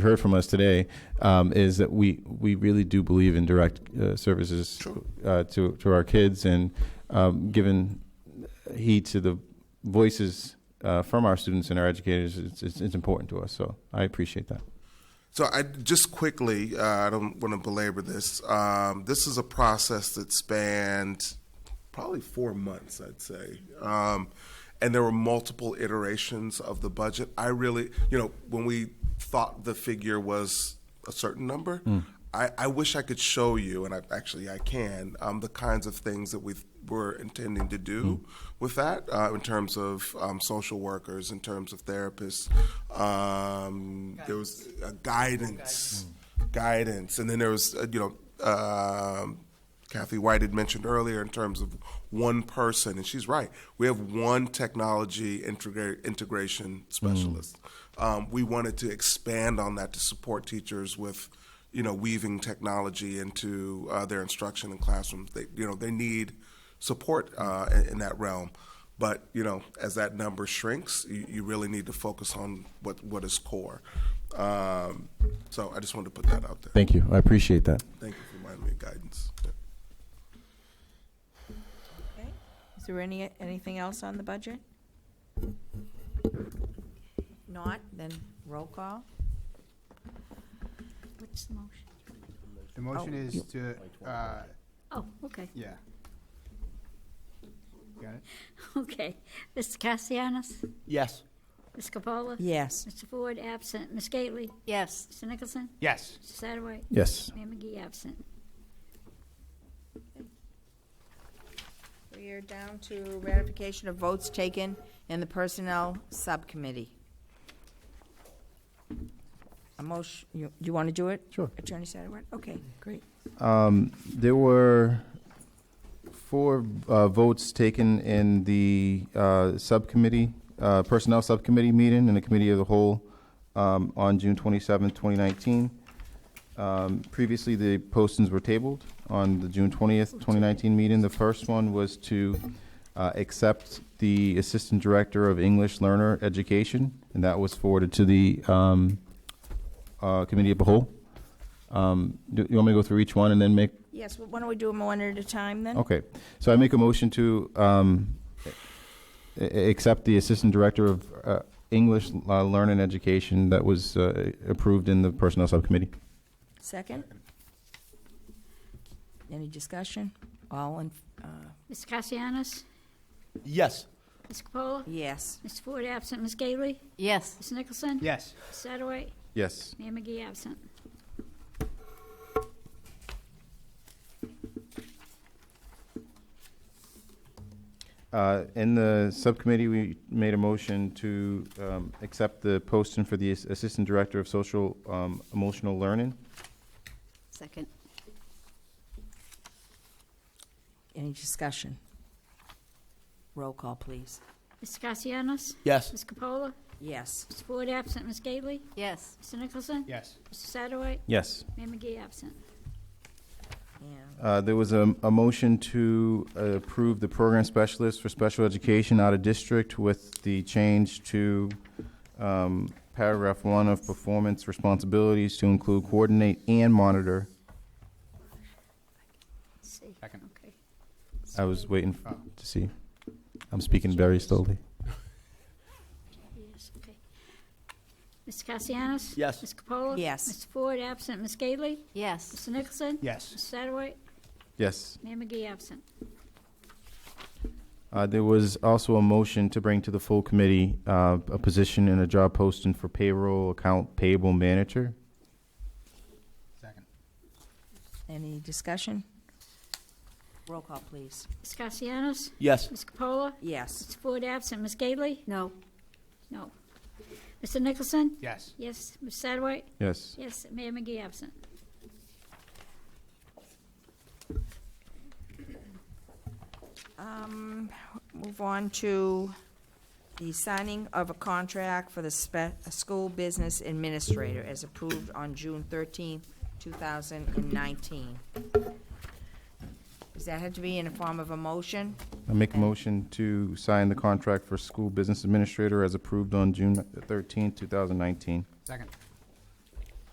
heard from us today um, is that we, we really do believe in direct uh, services uh, to, to our kids and um, given heed to the voices uh, from our students and our educators, it's, it's, it's important to us. So I appreciate that. So I just quickly, uh, I don't want to belabor this. Um, this is a process that spanned probably four months, I'd say. Um, and there were multiple iterations of the budget. I really, you know, when we thought the figure was a certain number, I, I wish I could show you, and I, actually I can, um, the kinds of things that we were intending to do with that uh, in terms of um, social workers, in terms of therapists. Um, there was uh, guidance, guidance, and then there was uh, you know um, Kathy White had mentioned earlier in terms of one person, and she's right. We have one technology integra- integration specialist. Um, we wanted to expand on that to support teachers with, you know, weaving technology into uh, their instruction in classrooms. They, you know, they need support uh, in, in that realm. But you know, as that number shrinks, you, you really need to focus on what what is core. Um, so I just wanted to put that out there. Thank you. I appreciate that. Thank you for reminding me of guidance. Yeah. Okay. Is there any, anything else on the budget? Not, then roll call. What's the motion? The Oh. motion is to, uh, Oh, okay, yeah. Got it? okay. Mr. Cassianis? Yes. Ms. Capola? Yes. Mr. Ford, absent. Ms. Gately? Yes. Mr. Nicholson? Yes. Mr. Satterwhite? Yes. Mayor McGee, absent. We are down to ratification of votes taken in the Personnel Subcommittee. A motion, you, you want to do it? Sure. Attorney Satterwhite? Okay, great. Um, There were four uh, votes taken in the uh, subcommittee, uh, Personnel Subcommittee meeting and the Committee of the Whole um, on June 27, 2019. Um, Previously, the postings were tabled on the June 20th, 2019 meeting. The first one was to uh, accept the Assistant Director of English Learner Education, and that was forwarded to the um, uh, Committee of the Whole. Um, Do you want me to go through each one and then make Yes, well, why don't we do them one at a time then? Okay, so I make a motion to um, a- a- accept the Assistant Director of uh, English uh, Learning Education that was uh, approved in the Personnel Subcommittee. Second? Any discussion? All in, uh, Mr. Cassianis? Yes. Ms. Capola? yes. Mr. Ford, absent. Ms. Gately? Yes. Mr. Nicholson? Yes. Mr. Satterwhite? Yes. Mayor McGee, absent. Uh, In the subcommittee, we made a motion to um, accept the posting for the Ass- Assistant Director of Social um, Emotional Learning. Second. Any discussion? Roll call, please. Mr. Cassianis? Yes. Ms. Capola? Yes. Mr. Ford, absent. Ms. Gately? Yes. Mr. Nicholson? Yes. Mr. Satterwhite? Yes. Mayor McGee, absent. And Uh, There was a, a motion to uh, approve the program specialist for special education out of district with the change to um, paragraph one of performance responsibilities to include coordinate and monitor. See. Second. Okay. I was waiting f- to see. I'm speaking very slowly. Yes, okay. Mr. Cassianis? Yes. Ms. Capola? Yes. Mr. Ford, absent. Ms. Gately? Yes. Mr. Nicholson? Yes. Mr. Satterwhite? Yes. Mayor McGee, absent. Uh, There was also a motion to bring to the full committee uh, a position and a job posting for payroll account payable manager. Second. Any discussion? Roll call, please. Ms. Cassianis? Yes. Ms. Capola? Yes. Mr. Ford, absent. Ms. Gately? No. No. Mr. Nicholson? Yes. Yes. Ms. Satterwhite? Yes. Yes. Mayor McGee, absent. um, Move on to the signing of a contract for the spe- a school business administrator as approved on June thirteenth, two thousand and nineteen. Does that have to be in the form of a motion? I make a motion to sign the contract for school business administrator as approved on June thirteenth, two thousand nineteen. Second.